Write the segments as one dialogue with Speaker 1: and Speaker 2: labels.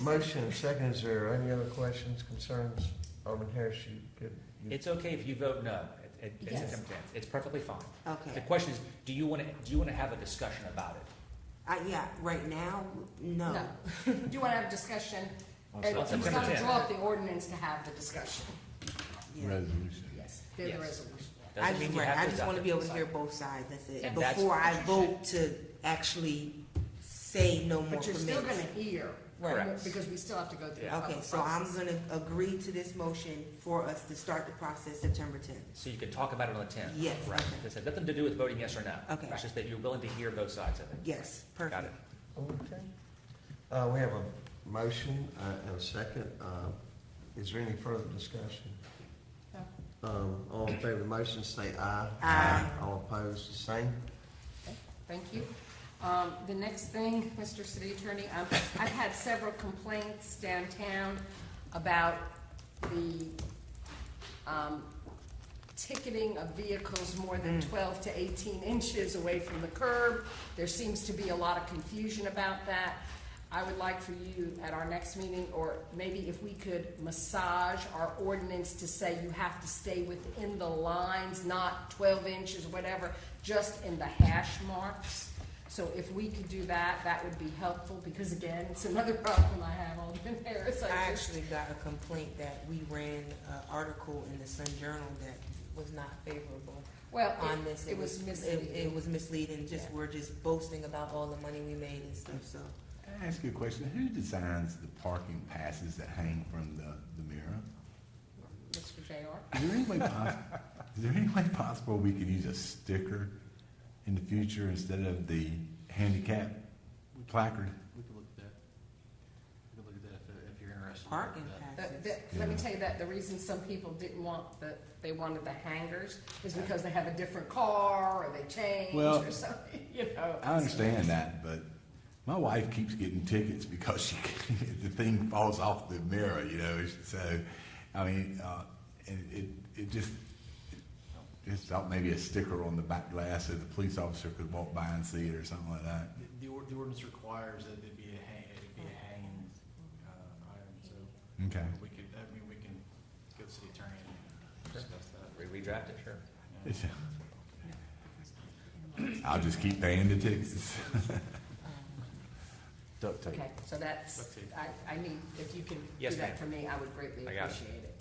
Speaker 1: Motion and second, is there any other questions, concerns? Alderman Harris, you could. you-
Speaker 2: It's okay if you vote no at, at- at
Speaker 3: Yes.
Speaker 2: September tenth. It's perfectly fine. The
Speaker 3: Okay,
Speaker 2: question is, do you want to, do you want to have a discussion about it?
Speaker 3: I, yeah, right now, no.
Speaker 4: No. Do you want to have a discussion? And
Speaker 2: September
Speaker 4: He's got to
Speaker 2: 10th.
Speaker 4: draw up the ordinance to have the discussion.
Speaker 3: Yeah.
Speaker 4: Yes, they're the
Speaker 2: Yes.
Speaker 4: resolution.
Speaker 3: I
Speaker 2: Doesn't
Speaker 3: just,
Speaker 2: mean you
Speaker 3: right, I
Speaker 2: have to
Speaker 3: just
Speaker 2: adopt
Speaker 3: want to
Speaker 2: it.
Speaker 3: be able to hear both sides, that's it,
Speaker 2: And that's-
Speaker 3: before I vote to actually say no more
Speaker 4: But you're still going
Speaker 3: permits.
Speaker 4: to hear.
Speaker 3: Right.
Speaker 2: Correct.
Speaker 4: Because we still have to go through. the
Speaker 2: Yeah.
Speaker 3: Okay,
Speaker 4: public
Speaker 3: so I'm
Speaker 4: process.
Speaker 3: gonna agree to this motion for us to start the process September tenth.
Speaker 2: So you can talk about it on the tenth.
Speaker 3: Yes,
Speaker 2: Right.
Speaker 3: okay.
Speaker 2: This has nothing to do with voting yes or no.
Speaker 3: Okay.
Speaker 2: It's just that you're willing to hear both sides of it.
Speaker 3: Yes,
Speaker 2: Got it.
Speaker 3: perfect.
Speaker 1: Okay. Uh, we have a motion uh, and a second. Uh, is there any further discussion?
Speaker 4: No.
Speaker 1: Um, all in favor of the motion, say aye.
Speaker 3: Aye.
Speaker 1: All opposed, the same.
Speaker 4: Thank you. Um, The next thing, Mr. City Attorney, um, I've had several complaints downtown about the um, ticketing of vehicles more than 12 to 18 inches away from the curb. There seems to be a lot of confusion about that. I would like for you at our next meeting, or maybe if we could massage our ordinance to say you have to stay within the lines, not 12 inches, whatever, just in the hash marks. So if we could do that, that would be helpful, because again, it's another problem I have, Alderman Harris.
Speaker 3: I
Speaker 4: just-
Speaker 3: actually got a complaint that we ran an article in the Sun Journal that was not favorable
Speaker 4: Well,
Speaker 3: on
Speaker 4: it-
Speaker 3: this.
Speaker 4: it was
Speaker 3: It, it
Speaker 4: misleading.
Speaker 3: was misleading, just,
Speaker 4: Yeah.
Speaker 3: we're just boasting about all the money we made and stuff, so.
Speaker 5: Can I ask you a question? Who designs the parking passes that hang from the, the mirror?
Speaker 4: Mr. JR?
Speaker 5: Is there any way possible, is there any way possible we could use a sticker in the future instead of the handicap placard?
Speaker 6: We could look at that. We could look at that if, if you're interested.
Speaker 3: Parking
Speaker 4: The-
Speaker 3: passes.
Speaker 4: the- Let me
Speaker 5: Yeah.
Speaker 4: tell you that, the reason some people didn't want the, they wanted the hangers is because they have a different car, or they changed,
Speaker 5: Well,
Speaker 4: or something, you know.
Speaker 5: I understand that, but my wife keeps getting tickets because she, the thing falls off the mirror, you know, so, I mean, uh, and it, it just, just thought maybe a sticker on the back glass so the police officer could walk by and see it or something like that.
Speaker 6: The, the or- the ordinance requires that it be a hang, it be a hanging, uh, item, so
Speaker 5: Okay.
Speaker 6: we could, I mean, we can go to the city attorney and discuss that.
Speaker 2: Re- Redraft it, sure.
Speaker 6: Yeah.
Speaker 5: I'll just keep paying the tickets.
Speaker 4: um,
Speaker 7: Duct tape.
Speaker 4: Okay, so that's,
Speaker 6: Okay.
Speaker 4: I, I need, if you can do
Speaker 2: Yes,
Speaker 4: that
Speaker 2: ma'am.
Speaker 4: for me, I would greatly
Speaker 2: I got it.
Speaker 4: appreciate it.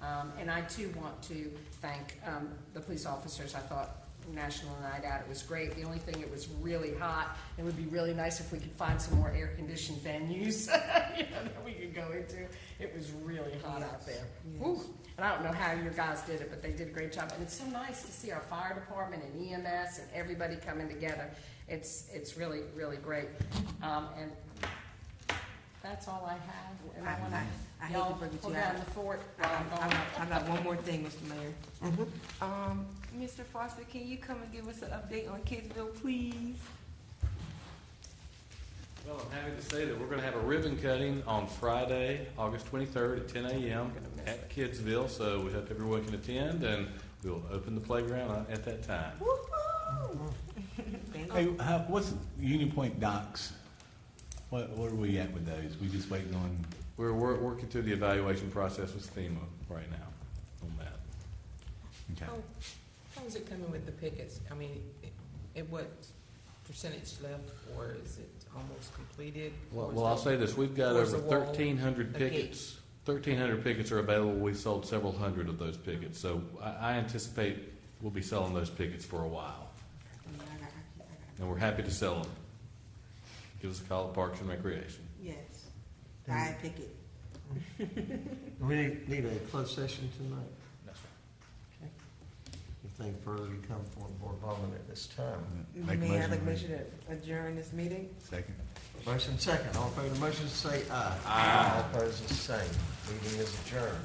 Speaker 4: Um, and I too want to thank, um, the police officers, I thought National Night Out, it was great, the only thing, it was really hot, it would be really nice if we could find some more air-conditioned venues, you know, that we could go into, it was really hot out there.
Speaker 3: Yes.
Speaker 4: Woo. And I don't know how your guys did it, but they did a great job. And it's so nice to see our fire department and EMS and everybody coming together. It's, it's really, really great. Um, and that's all I have. And I
Speaker 3: I-
Speaker 4: wanna,
Speaker 3: I- I hate to
Speaker 4: y'all
Speaker 3: bring it to
Speaker 4: hold
Speaker 3: you.
Speaker 4: down the fort while I'm
Speaker 3: I
Speaker 4: gone.
Speaker 3: got- I got one more thing, Mr. Mayor.
Speaker 8: Um, Mr. Foster, can you come and give us an update on Kidsville, please?
Speaker 6: Well, I'm happy to say that we're gonna have a ribbon cutting on Friday, August twenty-third at ten AM at Kidsville, so we hope everyone can attend, and we'll open the playground at that time.
Speaker 3: Thank you.
Speaker 5: Hey, how, what's Union Point docks? What, what are we at with those? We just waiting on,
Speaker 6: We're, we're working through the evaluation process with FEMA right now on that.
Speaker 5: okay.
Speaker 3: Oh.
Speaker 9: How's it coming with the pickets? I mean, at what percentage left, or is it almost completed?
Speaker 6: Well,
Speaker 9: Or is
Speaker 6: well, I'll
Speaker 9: it-
Speaker 6: say this, we've got
Speaker 9: Where's
Speaker 6: over
Speaker 9: the wall?
Speaker 6: thirteen hundred
Speaker 9: A gate.
Speaker 6: pickets. Thirteen hundred pickets are available. We've sold several hundred of those pickets, so I, I anticipate we'll be selling those pickets for a while.
Speaker 3: Yeah, I got- I got- I got-
Speaker 6: And we're happy to sell them. Give us a call at Parks and Recreation.
Speaker 3: Yes. I pick it.
Speaker 1: Do we need, need a closed session tonight?
Speaker 2: That's right.
Speaker 1: Anything further to come for the Board of Alderman at this time?
Speaker 5: Make
Speaker 3: Mayor,
Speaker 5: a
Speaker 3: I'd
Speaker 5: motion,
Speaker 3: like to
Speaker 5: we-
Speaker 3: make sure to adjourn this meeting.
Speaker 5: Second.
Speaker 1: Motion second, all in favor of the motion, say aye. Aye. All opposed, the same. Meeting is adjourned.